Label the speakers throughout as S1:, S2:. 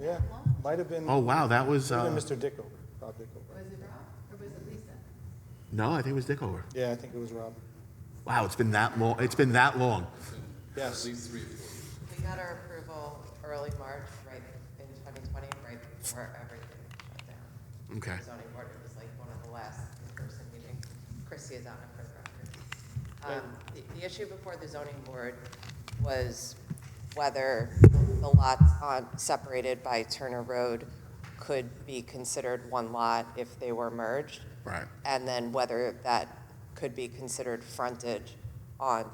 S1: Yeah, might have been,
S2: Oh, wow, that was,
S1: might have
S2: uh,
S1: been Mr. Dickover, Rob Dickover.
S3: Was it Rob or was it Lisa?
S2: no, I think it was Dickover.
S1: Yeah, I think it was Rob.
S2: Wow, it's been that long, it's been that long.
S1: Yes,
S3: We got our approval early March, right in 2020, right before everything shut down.
S2: Okay.
S3: The zoning board, it was like one of the last in-person meetings. Chrissy is on it for the record. Um, the- The issue before the zoning board was whether the lots on, separated by Turner Road could be considered one lot if they were merged.
S2: Right.
S3: And then whether that could be considered frontage on,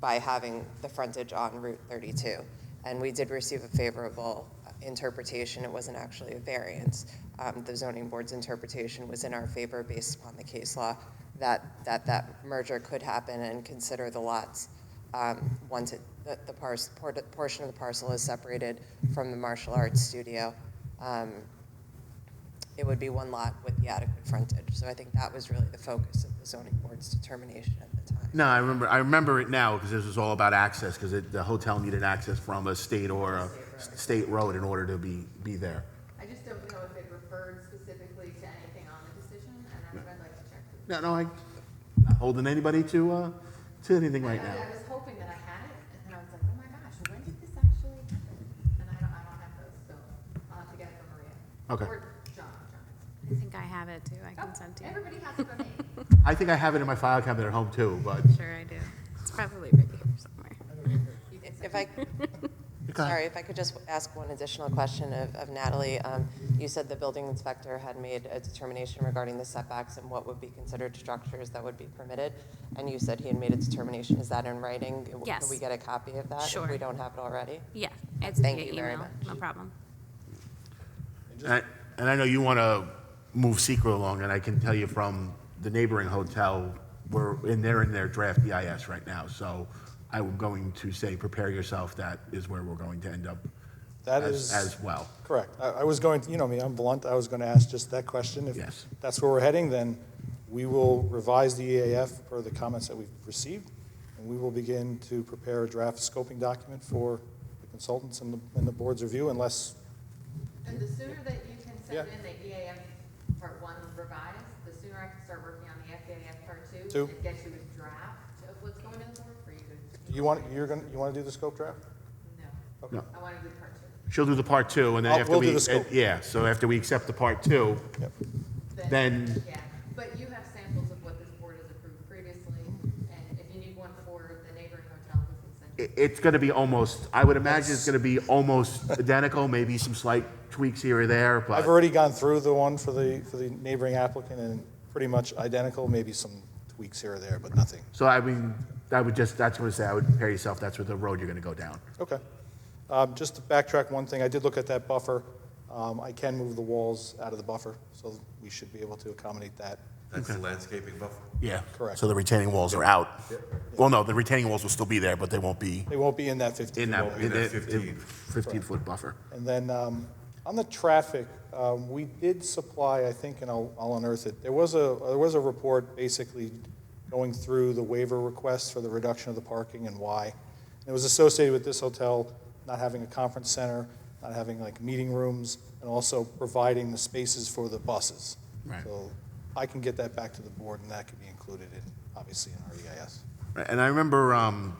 S3: by having the frontage on Route 32. And we did receive a favorable interpretation. It wasn't actually a variance. Um, The zoning board's interpretation was in our favor based upon the case law, that, that that merger could happen and consider the lots um, once it, the, the parcel, portion of the parcel is separated from the martial arts studio. Um, it would be one lot with the adequate frontage. So I think that was really the focus of the zoning board's determination at the time.
S2: No, I remember, I remember it now, because this was all about access, because the hotel needed access from a state or a state road in order to be, be there.
S4: I just don't know if it referred specifically to anything on the decision, and I would like to check. the-
S2: No, no, I, not holding anybody to, uh, to anything right now.
S4: I was hoping that I had it, and then I was like, oh my gosh, when did this actually happen? And I don't, I don't have those, so I'll have to get it from Maria.
S2: Okay.
S4: Or John, John.
S5: I think I have it too. I
S4: Oh,
S5: can send to you.
S4: Everybody has it but me.
S2: I think I have it in my file cabinet at home too, but.
S5: Sure, I do. It's probably right here somewhere.
S3: If I, sorry, if I could just ask one additional question of of Natalie. Um, You said the building inspector had made a determination regarding the setbacks and what would be considered structures that would be permitted. And you said he had made a determination. Is that in writing? Can
S5: Yes.
S3: we get a copy of that?
S5: Sure.
S3: If we don't have it already?
S5: Yeah, it's via
S3: Thank you very
S5: email. No problem.
S2: And I- and I know you want to move secret along, and I can tell you from the neighboring hotel, we're in, they're in their draft EIS right now, so I'm going to say, prepare yourself, that is where we're going to end up
S1: that
S2: as,
S1: is.
S2: as well.
S1: Correct. I, I was going, to- you know me, I'm blunt, I was going to ask just that question.
S2: Yes.
S1: If that's where we're heading, then we will revise the EAF per the comments that we've received, and we will begin to prepare a draft scoping document for the consultants and the, and the board's review unless,
S4: And the sooner that you can send
S1: Yeah.
S4: in the EAF Part One revised, the sooner I can start working on the FAF Part Two.
S1: Two.
S4: And get you a draft of what's going in the board for you to.
S1: you want, you're going, to you want to do the scope draft?
S4: No.
S1: Okay.
S2: No.
S4: I want to do Part Two.
S2: She'll do the part two, and then
S1: I'll-
S2: after
S1: we'll
S2: we.
S1: do the scope.
S2: Yeah, so after we accept the part two,
S1: Yep.
S2: Then-
S4: Yeah, but you have samples of what this board has approved previously, and if you need one for the neighboring hotel, we can send you.
S2: i- it's going to be almost, I would imagine it's going to be almost identical, maybe some slight tweaks here or there,
S1: I've
S2: but
S1: already gone through the one for the, for the neighboring applicant and pretty much identical, maybe some tweaks here or there, but nothing.
S2: so I mean, I would just, that's what I say, I would prepare yourself, that's what the road you're going to go down.
S1: Okay. Um, Just to backtrack one thing, I did look at that buffer. Um, I can move the walls out of the buffer, so we should be able to accommodate that.
S6: That's the landscaping buffer.
S2: Yeah.
S1: Correct.
S2: So the retaining walls are out. Well, no, the retaining walls will still be there, but they won't be
S1: They won't be in that 15.
S2: in that,
S6: be in that 15.
S2: 15-foot buffer.
S1: And then um, on the traffic, um, we did supply, I think, and I'll I'll unearth it, there was a, there was a report basically going through the waiver requests for the reduction of the parking and why. And It was associated with this hotel not having a conference center, not having like meeting rooms, and also providing the spaces for the buses.
S2: Right.
S1: So I can get that back to the board, and that could be included in, obviously, in our E EIS.
S2: And I remember um,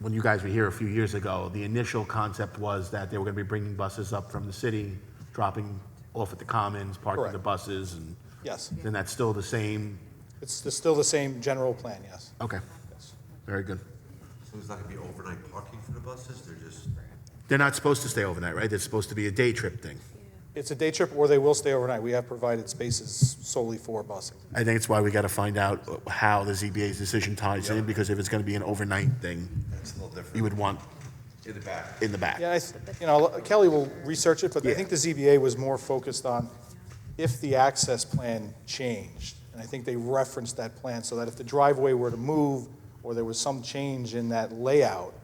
S2: when you guys were here a few years ago, the initial concept was that they were going to be bringing buses up from the city, dropping off at the commons, parking the
S1: Correct.
S2: buses, and
S1: Yes,
S2: then that's still the same?
S1: it's it's still the same general plan, yes.
S2: Okay,
S1: Yes.
S2: very good.
S6: So there's not gonna be overnight parking for the buses, they're just,
S2: They're not supposed to stay overnight, right? They're supposed to be a day trip thing.
S1: It's a day trip, or they will stay overnight. We have provided spaces solely for busing.
S2: I think it's why we got to find out how the ZBA's decision ties in, because if it's going to be an overnight thing,
S6: that's a little
S2: you
S6: different.
S2: would want
S6: In the back.
S2: in the back.
S1: Yeah, I, th- you know, Kelly will research it, but I
S2: Yeah.
S1: think the ZBA was more focused on if the access plan changed. And I think they referenced that plan so that if the driveway were to move or there was some change in that layout,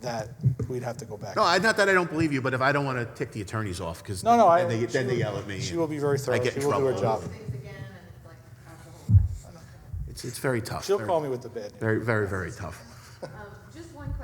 S1: that we'd have to go back.
S2: No, I, not that I don't believe you, but if I don't want to tick the attorneys off, because
S1: No, no, I.
S2: then they,
S1: she
S2: then they
S1: will-
S2: yell at me.
S1: She
S2: and
S1: will be very thorough.
S2: I get in
S1: She will do her
S2: trouble.
S1: job.
S4: Things again, and it's like, that's the whole thing.
S2: It's, it's very tough.
S1: She'll
S2: Very-
S1: call me with the bad news.
S2: Very, very, very tough.
S4: Um, Just one question E